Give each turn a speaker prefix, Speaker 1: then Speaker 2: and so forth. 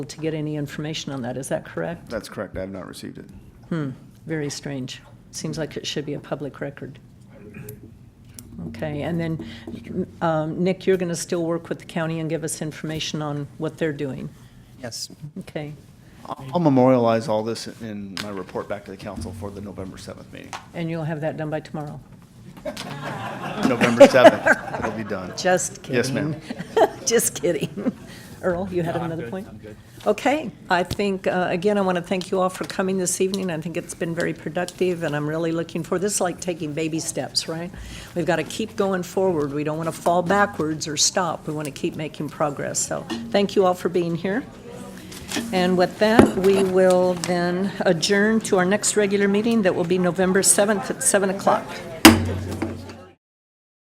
Speaker 1: to get any information on that, is that correct?
Speaker 2: That's correct. I have not received it.
Speaker 1: Very strange. Seems like it should be a public record. Okay, and then, um, Nick, you're going to still work with the county and give us information on what they're doing?
Speaker 3: Yes.
Speaker 1: Okay,
Speaker 2: I'll I'll memorialize all this in my report back to the council for the November 7th meeting.
Speaker 1: and you'll have that done by tomorrow?
Speaker 2: November 7th, it'll be done.
Speaker 1: Just kidding.
Speaker 2: Yes, ma'am.
Speaker 1: Just kidding. Earl, you had another point? Okay, I think, uh, again, I want to thank you all for coming this evening. I think it's been very productive, and I'm really looking forward, this is like taking baby steps, right? We've got to keep going forward. We don't want to fall backwards or stop. We want to keep making progress. So thank you all for being here. And with that, we will then adjourn to our next regular meeting that will be November 7th at 7 o'clock.